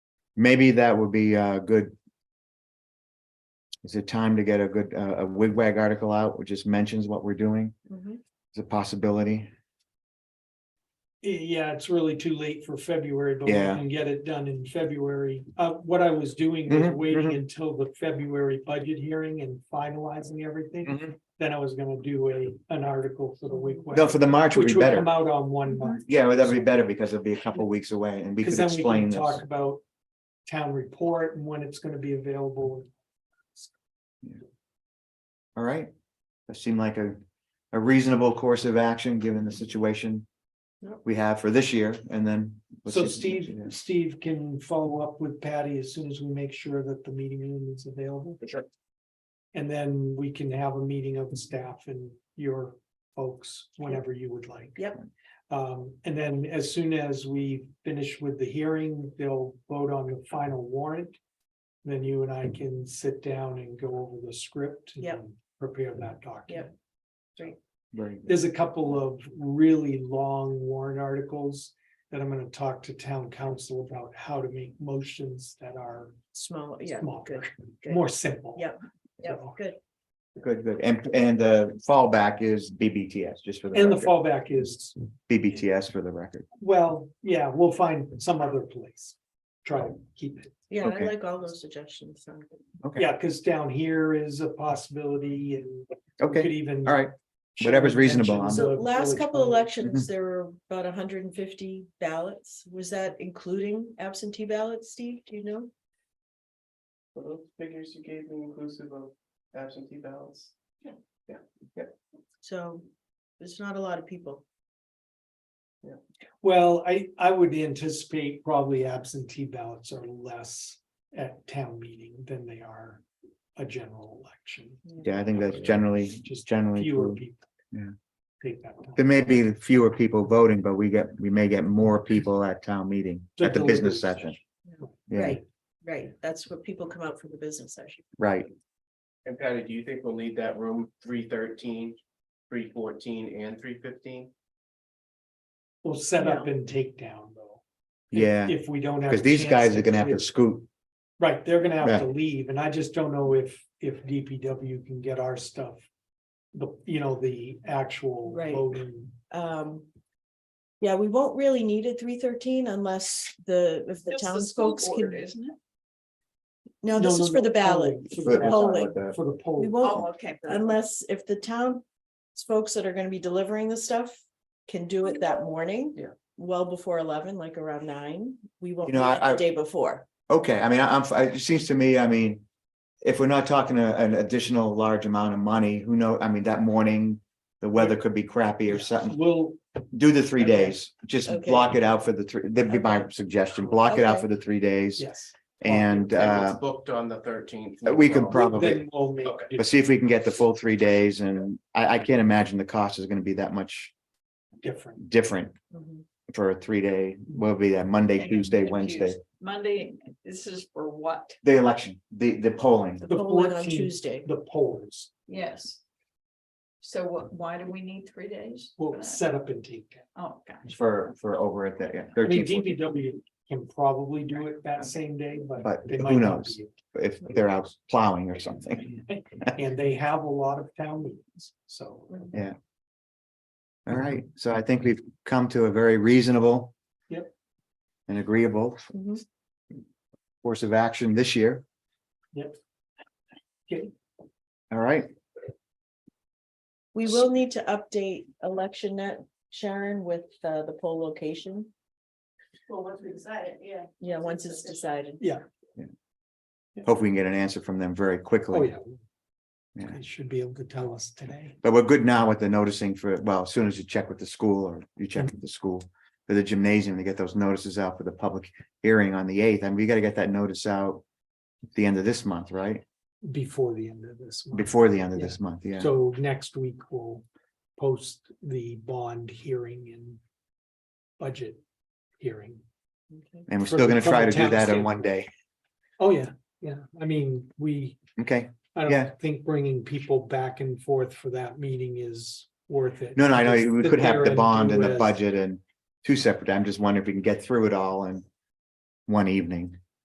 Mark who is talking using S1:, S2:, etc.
S1: maybe that would be a good. Is it time to get a good, uh, a wigwag article out, which just mentions what we're doing?
S2: Mhm.
S1: It's a possibility.
S3: Eh, Yeah, it's really too late for February, but we
S1: Yeah.
S3: can get it done in February. Uh, what I was doing was
S1: Mhm,
S3: waiting
S1: mhm.
S3: until the February budget hearing and finalizing everything.
S1: No,
S3: Then I was gonna do a, an article for the week.
S1: for the March would be
S3: Which would come
S1: better.
S3: out on one month,
S1: Yeah, well, that'd be better because it'll be a couple weeks away and we
S3: because
S1: could
S3: then we
S1: explain
S3: can
S1: this.
S3: talk about town report and when it's gonna be available.
S1: All right. That seemed like a, a reasonable course of action, given the situation
S3: Yep.
S1: we have for this year and then. we'll
S3: So
S1: see what we
S3: Steve,
S1: do.
S3: Steve can follow up with Patty as soon as we make sure that the meeting room is available.
S4: Sure.
S3: And then we can have a meeting of the staff and your folks whenever you would like.
S2: Yep.
S3: Um, and then as soon as we finish with the hearing, they'll vote on the final warrant. Then you and I can sit down and go over the script. and
S2: Yep.
S3: Prepare that document.
S2: Yep.
S1: Very good.
S3: There's a couple of really long warrant articles that I'm gonna talk to town council about how to make motions that are
S2: Small, yeah,
S3: Smaller.
S2: good, good.
S3: more simple.
S2: Yep. Yeah,
S3: So-
S2: good.
S1: Good, good. And, and the fallback is BBTS, just for the.
S3: And the
S1: record.
S3: fallback is,
S1: BBTS for the record.
S3: well, yeah, we'll find some other place. Try to keep it.
S2: Yeah, I
S1: Okay.
S2: like all those suggestions. sound good.
S1: Okay.
S3: Yeah, because down here is a possibility and we could
S1: Okay,
S3: even.
S1: all right. Whatever's reasonable,
S3: mention
S1: I'm-
S3: the
S2: So last
S3: village
S2: couple
S3: board.
S2: elections,
S1: Mm-hmm.
S2: there were about hundred and fifty ballots. Was that including absentee ballots, Steve? Do you know?
S5: Were those figures you gave me inclusive of absentee ballots?
S2: So there's not a lot of people.
S3: Well, I, I would anticipate probably absentee ballots are less at town meeting than they are a general election.
S1: Yeah, I think that's generally, just generally
S3: Fewer
S1: true.
S3: people.
S1: Yeah.
S3: Take that. time.
S1: There may be fewer people voting, but we get, we may get more people at town meeting,
S3: The
S1: at the business
S3: delivery
S1: session.
S2: session.
S1: Yeah,
S2: Right, right. That's what people come out for the business session.
S1: right.
S4: And Patty, do you think we'll need that room 313, 314, and three fifteen?
S3: We'll set up and take down though. if-
S1: Yeah,
S3: If we don't have.
S1: because
S3: a
S1: these
S3: chance
S1: guys are gonna have to
S3: clear-
S1: scoot.
S3: Right, they're gonna
S1: Yeah.
S3: have to leave, and I just don't know if, if DPW can get our stuff. The, you know, the actual
S2: Right.
S3: voting,
S2: Um. Yeah, we won't really need a three thirteen unless the, if the townsfolk can.
S5: Isn't it?
S2: No,
S3: No,
S2: this
S3: no,
S2: is for the
S3: no,
S2: ballot,
S3: polling,
S2: for
S3: for the
S2: the
S3: ballot.
S2: polling.
S3: for the
S2: We
S3: poll,
S6: Oh,
S2: won't
S5: Oh, okay.
S2: unless if the town folks that are gonna be delivering the stuff can do it that morning.
S5: Yeah.
S2: Well before eleven, like around nine, we won't,
S1: You know,
S2: do it
S1: I-
S2: the day before.
S1: Okay, I mean, I- I'm, fi- it seems to me, I mean, if we're not talking a- an additional large amount of money, who know, I mean, that morning, the weather could be crappy or something.
S3: we'll,
S1: Do the three
S2: Okay.
S1: days, just
S2: Okay.
S1: block it out for the three, that'd be my suggestion, block it out
S2: Okay.
S1: for the three days
S3: yes.
S1: and, uh.
S4: Booked on the thirteenth.
S1: we can prob- Probably.
S3: Then we'll make,
S4: Okay.
S1: But see if we can get the full three days and I, I can't imagine the cost is gonna be that much
S3: it different,
S1: different
S2: Mhm.
S1: for a three day, will be that Monday, Tuesday, Wednesday.
S6: Monday, this is for what?
S1: The election, the, the polling.
S2: The
S3: The
S2: polling on
S3: 14th.
S2: Tuesday.
S3: the polls,
S6: Yes. So what, why do we need three days? for
S3: we'll
S6: that?
S3: set up and take. down.
S6: Oh, gosh.
S1: For, for over at that, yeah,
S3: I mean,
S1: 13th,
S3: DPW can probably do it that same day, but.
S1: But
S3: they
S1: who
S3: might not
S1: knows?
S3: be
S1: if they're out plowing or something.
S3: able to. And they have a lot of town meetings, so.
S1: All right, so I think we've come to a very reasonable.
S3: Yep.
S1: And agreeable
S2: Mhm.
S1: course of action this year.
S3: Yep. Okay.
S1: All right,
S2: We will need to update election net, Sharon, with uh, the poll location.
S5: Well, once we decide it, yeah.
S2: Yeah, once it's decided.
S1: hope we can get an answer from them very
S3: Oh,
S1: quickly.
S3: yeah.
S1: Yeah.
S3: They should be able to tell us today.
S1: But we're good now with the noticing for, well, as soon as you check with the school or you check
S3: Mm.
S1: with the school. For the gymnasium to get those notices out for the public hearing on the eighth, I mean, we gotta get that notice out. At the end of this month, right?
S3: Before the end of this. month.
S1: Before the end of
S3: Yeah.
S1: this month, yeah.
S3: So next week we'll post the bond hearing and budget hearing.
S2: Okay.
S1: And we're
S3: for
S1: still
S3: the-
S1: gonna
S3: from
S1: try to
S3: the
S1: do
S3: town
S1: that in one day.
S3: Oh, yeah, yeah. I mean, we,
S1: Okay,
S3: I
S1: Yeah.
S3: don't think bringing people back and forth for that meeting is worth it.
S1: no, no, I
S3: Just
S1: know, we
S3: sit
S1: could
S3: there
S1: have the bond
S3: do
S1: and the
S3: as-
S1: budget and two separate, I'm just wondering if we can get through it all in. One evening,